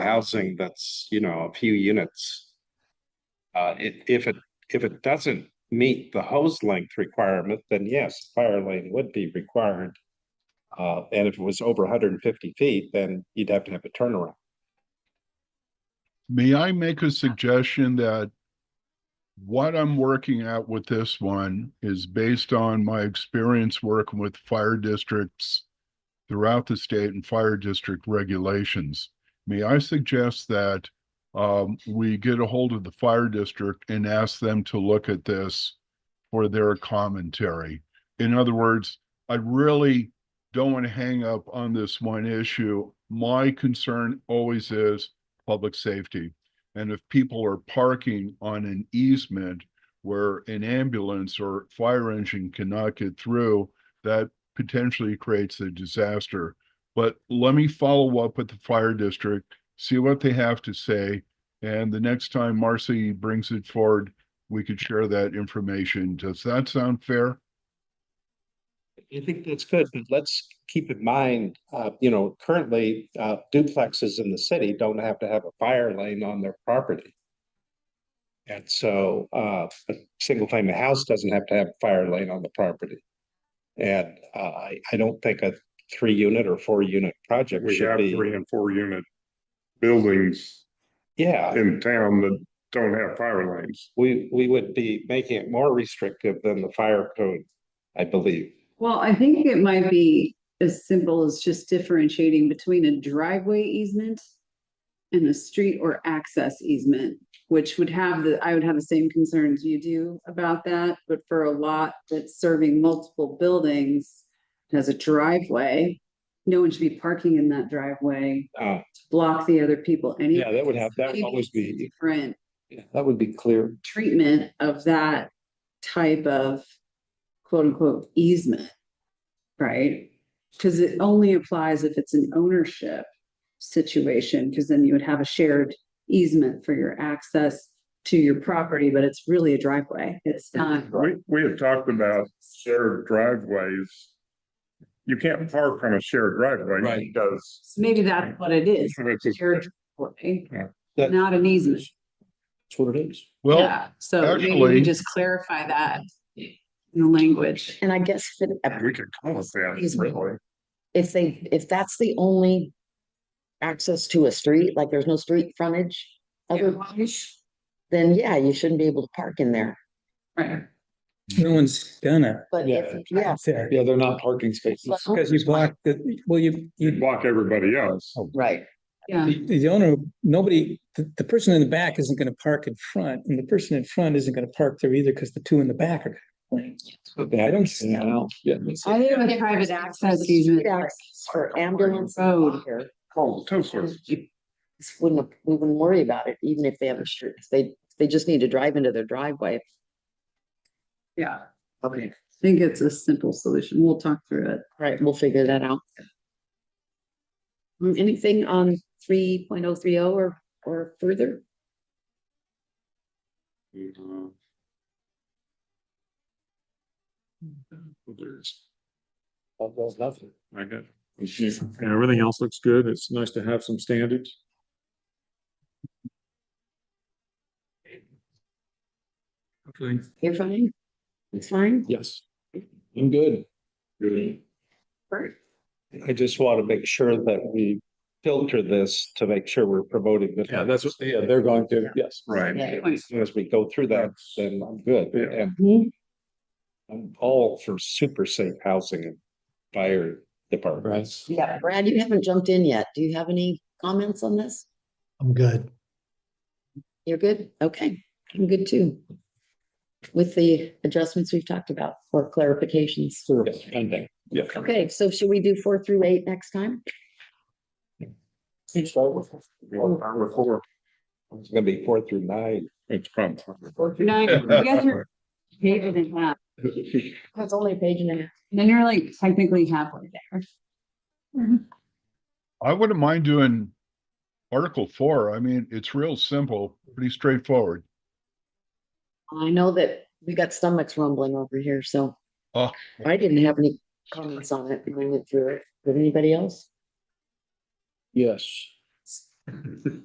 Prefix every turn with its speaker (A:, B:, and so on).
A: housing that's, you know, a few units. Uh, i- if it, if it doesn't meet the hose length requirement, then yes, fire lane would be required. Uh, and if it was over hundred and fifty feet, then you'd have to have a turnaround.
B: May I make a suggestion that what I'm working at with this one is based on my experience working with fire districts throughout the state and fire district regulations. May I suggest that um, we get a hold of the fire district and ask them to look at this for their commentary? In other words, I really don't want to hang up on this one issue. My concern always is public safety. And if people are parking on an easement where an ambulance or fire engine cannot get through, that potentially creates a disaster. But let me follow up with the fire district, see what they have to say. And the next time Marcy brings it forward, we could share that information. Does that sound fair?
A: I think that's good, but let's keep in mind, uh, you know, currently, uh, duplexes in the city don't have to have a fire lane on their property. And so, uh, a single family house doesn't have to have a fire lane on the property. And, uh, I, I don't think a three unit or four unit project
C: We
A: should
C: have
A: be,
C: three and four unit buildings
A: yeah.
C: in town that don't have fire lanes.
A: We, we would be making it more restrictive than the fire code, I believe.
D: Well, I think it might be as simple as just differentiating between a driveway easement and a street or access easement, which would have the, I would have the same concerns you do about that, but for a lot that's serving multiple buildings, it has a driveway, no one should be parking in that driveway
A: Uh,
D: to block the other people any.
A: yeah, that would have, that would always be,
D: Different
A: that would be clear.
D: treatment of that type of quote unquote easement, right? Because it only applies if it's an ownership situation, because then you would have a shared easement for your access to your property, but it's really a driveway. It's not.
C: We, we have talked about shared driveways. You can't park on a shared driveway
A: Right.
C: because.
D: So Maybe that's what it is,
C: it's just-
D: shared driveway,
C: Yeah.
A: That-
D: not an easement.
A: That's what it is.
B: Well,
D: Yeah, so maybe
B: actually-
D: we just clarify that in the language.
E: And I guess if it-
C: We could call it that, really.
E: if they, if that's the only access to a street, like there's no street frontage otherwise, then yeah, you shouldn't be able to park in there.
D: Right.
F: No one's gonna,
E: But if, yeah,
F: there,
A: Yeah, they're not parking spaces.
E: But-
F: because you block the, well, you,
C: You
F: you,
C: block everybody else.
A: Oh.
E: right,
D: Yeah.
F: the the owner, nobody, the, the person in the back isn't gonna park in front, and the person in front isn't gonna park there either, because the two in the back are. gonna I don't see how.
D: I think with private access easement.
E: access for ambulance.
D: Road.
E: here,
C: Oh, Tesla.
E: you- this Wouldn't, we wouldn't worry about it, even if they have a street, if they, they just need to drive into their driveway.
D: Yeah.
E: Okay.
D: I think it's a simple solution. We'll talk through it.
E: Right, we'll figure that out. Mm, Anything on three point oh three oh or, or further?
A: nothing.
G: I got, yeah, everything else looks good. It's nice to have some standards.
F: Okay.
E: You're fine? It's fine?
G: Yes.
A: I'm good.
G: Good.
E: Bert?
A: I just want to make sure that we filter this to make sure we're promoting. the-
G: Yeah, that's what, yeah, they're going to, yes.
A: Right.
E: Yeah.
A: As soon as we go through that, then I'm good.
G: Yeah.
A: And
E: Mhm.
A: I'm all for super safe housing and fire departments.
E: Yeah, Brad, you haven't jumped in yet. Do you have any comments on this?
H: I'm good.
E: You're good? Okay, I'm good too. With the adjustments we've talked about or clarifications.
A: Yes, pending.
E: Okay, so should we do four through eight next time?
A: It's gonna be four through nine.
C: It's probably.
D: Nine, you guys are paving in half,
E: That's only a page and a half.
D: and then you're like technically halfway there.
B: I wouldn't mind doing Article Four. I mean, it's real simple, pretty straightforward.
E: I know that we got stomachs rumbling over here, so.
B: Oh.
E: I didn't have any comments on it when I went through it. Did anybody else?
G: Yes.